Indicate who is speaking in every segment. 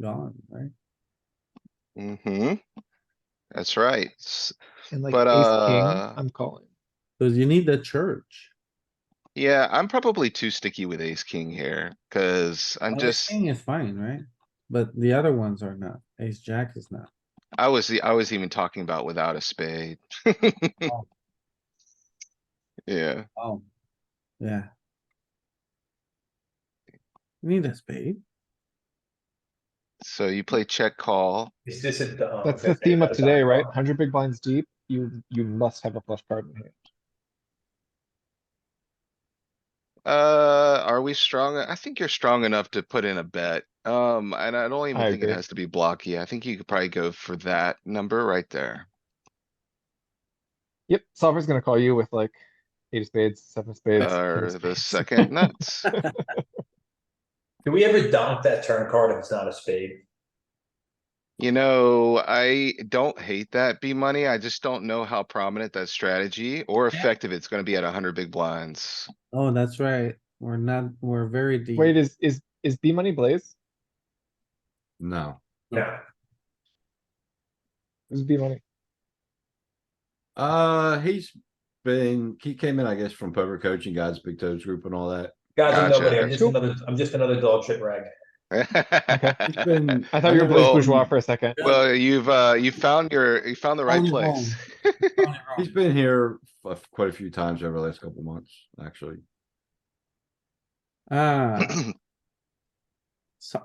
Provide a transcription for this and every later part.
Speaker 1: gone, right?
Speaker 2: Mm-hmm. That's right. S-
Speaker 3: And like ace
Speaker 2: But, uh,
Speaker 3: king, I'm calling.
Speaker 1: Cause you need the church.
Speaker 2: Yeah, I'm probably too sticky with ace king here, cuz I'm
Speaker 1: Well, the
Speaker 2: just,
Speaker 1: King is fine, right? But the other ones are not. Ace jack is not.
Speaker 2: I was, the- I was even talking about without a spade.
Speaker 3: Oh.
Speaker 2: Yeah,
Speaker 1: Oh, yeah. Need a spade.
Speaker 2: so you play check call.
Speaker 4: Is this a? oh,
Speaker 3: That's
Speaker 4: okay,
Speaker 3: the theme of
Speaker 4: that's
Speaker 3: today,
Speaker 4: not-
Speaker 3: right? Hundred big blinds deep, you, you must have a flush card in hand.
Speaker 2: Uh, are we strong? I think you're strong enough to put in a bet. Um, and I don't even
Speaker 3: I
Speaker 2: think it
Speaker 3: agree.
Speaker 2: has to be blocky. I think you could probably go for that number right there.
Speaker 3: Yep, solver's gonna call you with like eight of spades, seven of spades. ten of
Speaker 2: Or the
Speaker 3: spades.
Speaker 2: second nuts.
Speaker 4: Do we ever dump that turn card if it's not a spade?
Speaker 2: You know, I don't hate that B money. I just don't know how prominent that strategy or effective it's gonna be at hundred big blinds.
Speaker 1: Oh, that's right. We're not, we're very deep.
Speaker 3: Wait, is, is, is B money blaze?
Speaker 5: No,
Speaker 4: No.
Speaker 3: Is B money?
Speaker 5: uh, he's been, he came in, I guess, from poker coaching guys, big toes group and all that.
Speaker 4: Guys, I'm
Speaker 2: Gotcha.
Speaker 4: nobody. I'm just
Speaker 3: Cool.
Speaker 4: another, I'm just another dog shit rag.
Speaker 5: He's been-
Speaker 3: I thought you were blaze
Speaker 2: Well-
Speaker 3: bourgeois for a second.
Speaker 2: Well, you've, uh, you found your, you found the right
Speaker 1: Only
Speaker 2: place.
Speaker 1: wrong.
Speaker 5: He's been here a f- quite a few times over the last couple months, actually.
Speaker 1: Ah, so,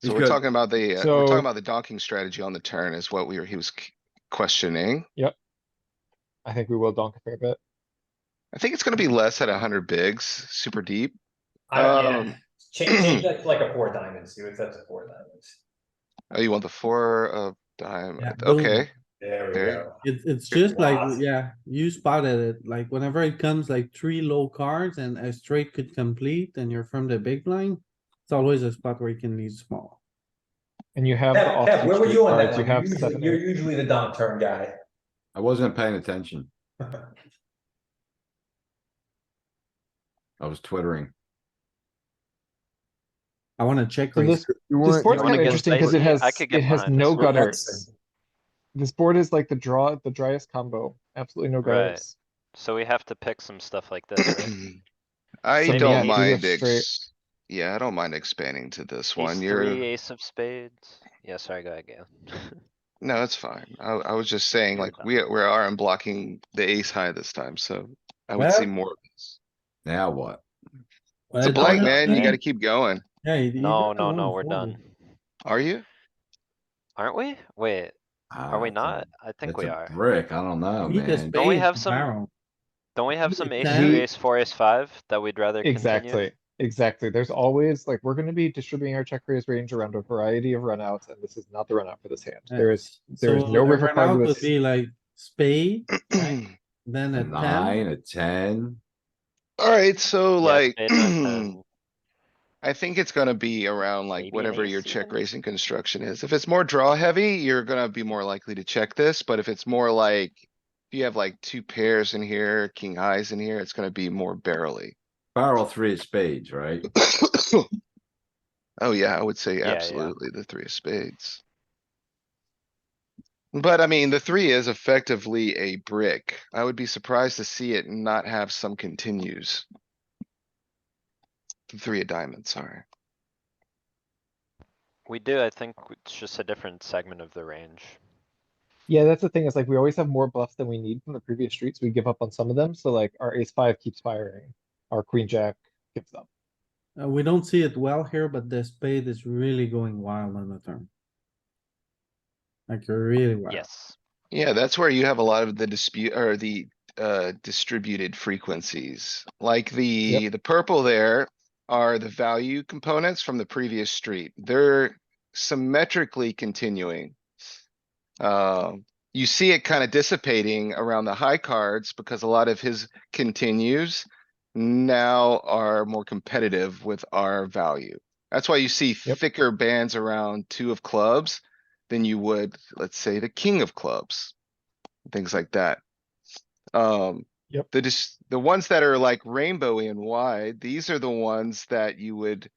Speaker 2: So
Speaker 5: He's
Speaker 2: we're
Speaker 5: good.
Speaker 2: talking about the, uh, we're talking
Speaker 3: So-
Speaker 2: about the donking strategy on the turn is what we were, he was c- questioning.
Speaker 3: I think we will donk a fair bit.
Speaker 2: I think it's gonna be less at hundred bigs, super deep.
Speaker 4: I don't, yeah.
Speaker 2: Um,
Speaker 4: Change, change that to like a four diamond, see what that's a four diamonds.
Speaker 2: Oh, you want the four of
Speaker 1: Yeah,
Speaker 2: diamond?
Speaker 1: boom.
Speaker 2: Okay,
Speaker 4: There we
Speaker 2: There.
Speaker 4: go.
Speaker 1: it's, it's
Speaker 4: Good
Speaker 1: just like,
Speaker 4: bluff.
Speaker 1: yeah, you spotted it, like whenever it comes like three low cards and a straight could complete and you're from the big blind. It's always a spot where you can lead small.
Speaker 3: And you have the
Speaker 4: Pat, Pat, where were
Speaker 3: offsuit
Speaker 4: you on that
Speaker 3: cards, you
Speaker 4: one?
Speaker 3: have
Speaker 4: You're usually-
Speaker 3: seven,
Speaker 4: You're
Speaker 3: eight.
Speaker 4: usually the dump turn guy.
Speaker 5: I wasn't paying attention. I was twittering.
Speaker 1: I wanna check.
Speaker 3: So
Speaker 1: raise.
Speaker 3: this, this board's
Speaker 6: wanna
Speaker 3: kinda
Speaker 6: get
Speaker 3: interesting because it
Speaker 6: spicy?
Speaker 3: has,
Speaker 6: I could get
Speaker 3: it has
Speaker 6: behind
Speaker 3: no
Speaker 6: this. We're
Speaker 3: gutters. This board is like the draw, the driest combo, absolutely no
Speaker 6: Right.
Speaker 3: gutters.
Speaker 6: So we have to pick some stuff like this. right?
Speaker 2: I
Speaker 3: So yeah,
Speaker 2: don't
Speaker 3: you
Speaker 2: mind
Speaker 3: have straight-
Speaker 2: ex, yeah, I don't mind expanding to this
Speaker 6: Ace
Speaker 2: one. You're.
Speaker 6: three, ace of spades. Yeah, sorry, go ahead, Galen.
Speaker 2: No, it's fine. I, I was just saying,
Speaker 6: You're
Speaker 2: like,
Speaker 6: fine.
Speaker 2: we, we are unblocking the ace high this time, so I would see
Speaker 1: Well-
Speaker 2: more. of this.
Speaker 5: Now what?
Speaker 1: Well,
Speaker 2: It's a
Speaker 1: it
Speaker 2: blank,
Speaker 1: doesn't-
Speaker 2: man. You
Speaker 6: man.
Speaker 2: gotta keep going.
Speaker 1: Yeah. you- you
Speaker 6: No,
Speaker 1: got
Speaker 6: no,
Speaker 1: the
Speaker 6: no,
Speaker 1: one
Speaker 6: we're
Speaker 1: folded.
Speaker 6: done.
Speaker 2: Are you?
Speaker 6: Aren't we? Wait, are we not? I think we are.
Speaker 5: Ah, Brick, I don't
Speaker 2: Oh,
Speaker 5: know,
Speaker 1: Need a
Speaker 5: man.
Speaker 6: Don't we
Speaker 1: spade
Speaker 6: have
Speaker 1: to
Speaker 6: some-
Speaker 1: barrel.
Speaker 6: Don't we have
Speaker 1: You
Speaker 6: some
Speaker 1: could
Speaker 6: ace
Speaker 1: say-
Speaker 6: two, ace four, ace five that we'd rather continue?
Speaker 3: Exactly, exactly. There's always, like, we're gonna be distributing our check raise range around a variety of runouts, and this is not the runout for this hand. There is, there is
Speaker 1: So
Speaker 3: no
Speaker 1: the
Speaker 3: river
Speaker 1: runout
Speaker 3: card with
Speaker 1: Would
Speaker 3: this.
Speaker 1: be like spade, then
Speaker 5: A
Speaker 1: a ten.
Speaker 5: Nine, a ten,
Speaker 2: Alright, so
Speaker 6: Yeah,
Speaker 2: like,
Speaker 6: spade nine, ten.
Speaker 2: I think it's gonna be around like
Speaker 6: Maybe an
Speaker 2: whatever your
Speaker 6: ace
Speaker 2: check
Speaker 6: even.
Speaker 2: raising construction is. If it's more draw heavy, you're gonna be more likely to check this, but if it's more like. If you have like two pairs in here, king highs in here, it's gonna be more barely.
Speaker 5: barrel three of spades, right?
Speaker 2: Oh, yeah, I would say
Speaker 6: Yeah, yeah.
Speaker 2: absolutely the three of spades. But I mean, the three is effectively a brick. I would be surprised to see it not have some continues. The Three of diamonds, sorry.
Speaker 6: We do, I think it's just a different segment of the range.
Speaker 3: Yeah, that's the thing, is like, we always have more bluffs than we need from the previous streets. We give up on some of them, so like, our ace five keeps firing, our queen jack gives up.
Speaker 1: Uh, we don't see it well here, but the spade is really going wild on the turn. Like really wild.
Speaker 6: Yes.
Speaker 2: Yeah, that's where you have a lot of the dispute or the uh distributed frequencies. Like the, the purple there are the value components from the previous street. They're symmetrically continuing. Um, you see it kind of dissipating around the high cards because a lot of his continues now are more competitive with our value. That's why you see
Speaker 3: Yep.
Speaker 2: thicker bands around two of clubs than you would, let's say, the king of clubs. Things like that. Um.
Speaker 3: Yep.
Speaker 2: The just, the ones that are like rainbowy and wide, these are the ones that you would